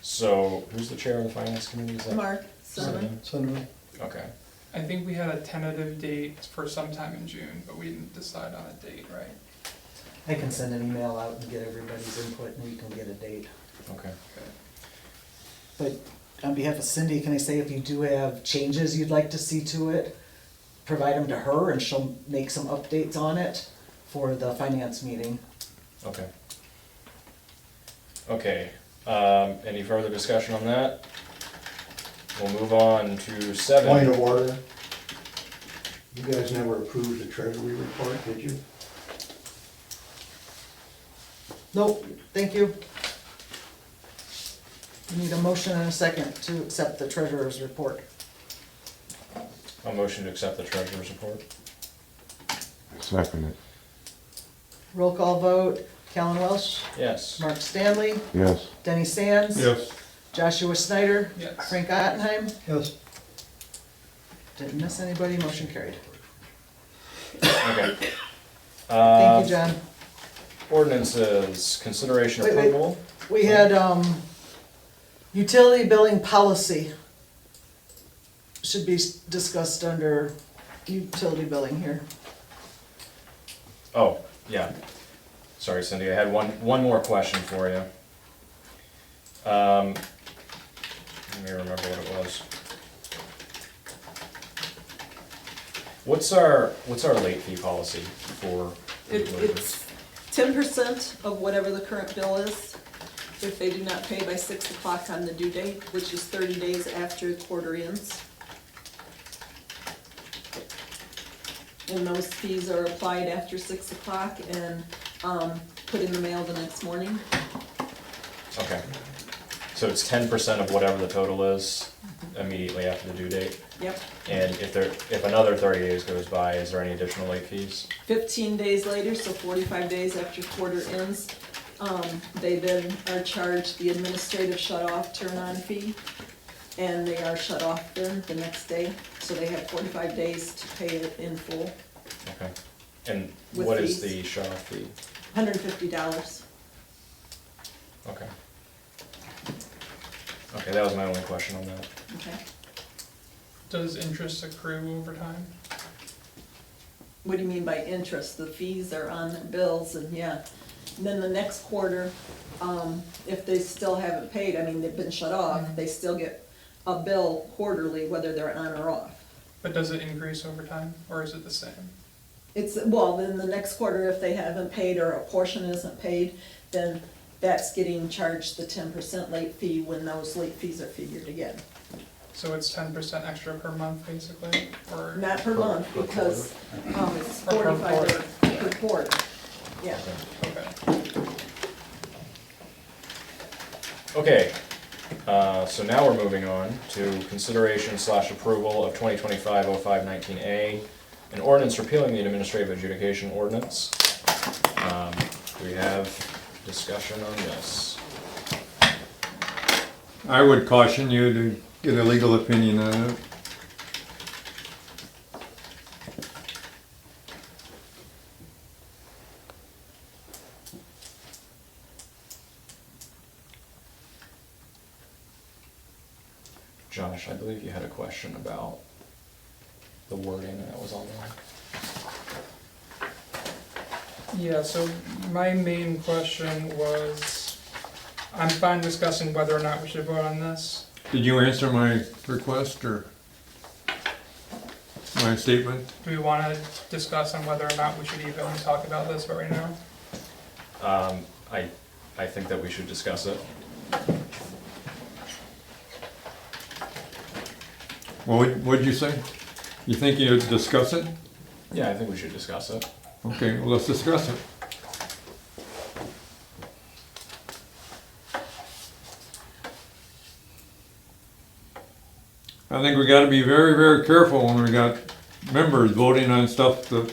So who's the chair of the finance committee? Is that- Mark Sullivan. Sullivan. Sunderland. Okay. I think we had a tentative date for sometime in June, but we didn't decide on a date, right? I can send an email out and get everybody's input and we can get a date. Okay. But on behalf of Cindy, can I say if you do have changes you'd like to see to it, provide them to her and she'll make some updates on it for the finance meeting. Okay. Okay, um, any further discussion on that? We'll move on to Point seven. of order. You guys never approved the treasury report, did you? Nope, thank you. We Need a motion and a second to accept the treasurer's report. A motion to accept the treasurer's report? Second it, Roll call vote, Callan Welsh, Yes. Mark Stanley, yes. Denny Sands. Yes. Joshua Snyder. Yes. Frank Ottenheim. Yes. Didn't miss anybody, motion carried. Okay. Thank you, Uh, John. ordinances, consideration Wait, wait. approval? We had, um, utility billing policy should be s- discussed under utility billing here. Oh, yeah. Sorry, Cindy, I had one, one more question for you. Um, let me remember what it was. What's our, what's our late fee policy for? It, it's ten percent of whatever the current bill is. If they do not pay by six o'clock on the due date, which is thirty days after quarter ends. And those fees are applied after six o'clock and, um, put in the mail the next morning. Okay. So it's ten percent of whatever the total is immediately after the due date? Yep, And if there, if another thirty days goes by, is there any additional late fees? fifteen days later, so forty-five days after quarter ends, um, they then are charged the administrative shut-off turn-on fee, and they are shut off then the next day, so they have forty-five days to pay it in full, Okay. And With what is fees. the shut-off fee? hundred and fifty dollars. Okay. Okay, that was my only question on that. Okay, Does interest accrue over time? what do you mean by interest? The fees are on their bills, and yeah, And then the next quarter, um, if they still haven't paid, I mean, they've been shut off, they still get a bill quarterly, whether they're on or off. But does it increase over time, or is it the same? It's, well, then the next quarter, if they haven't paid or a portion isn't paid, then that's getting charged the ten percent late fee when those late fees are figured again. So it's ten percent extra per month, basically, or? Not per month, per because, um, it's Or per forty-five days per quarter. Yeah, Okay. Okay, uh, so now we're moving on to consideration slash approval of 2025-05-19A, an ordinance repealing the administrative adjudication ordinance. Um, We have discussion on this. I would caution you to get a legal opinion on it. Josh, I believe you had a question about the wording that was on there. Yeah, so my main question was, I'm fine discussing whether or not we should vote on this. Did you answer my request or my statement? Do we wanna discuss on whether or not we should even talk about this right now? Um, I, I think that we should discuss it. Well, what- what'd you say? You think you'd discuss it? Yeah, I think we should discuss it. Okay, well, let's discuss it. I think we gotta be very, very careful when we got members voting on stuff that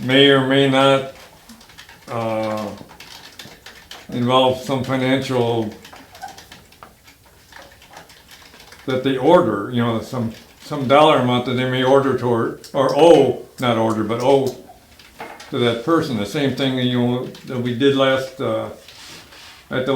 may or may not, uh, involve some financial that they order, you know, some, some dollar amount that they may order toward, or owe, not order, but owe to that person. The same thing, you know, that we did last, uh, at the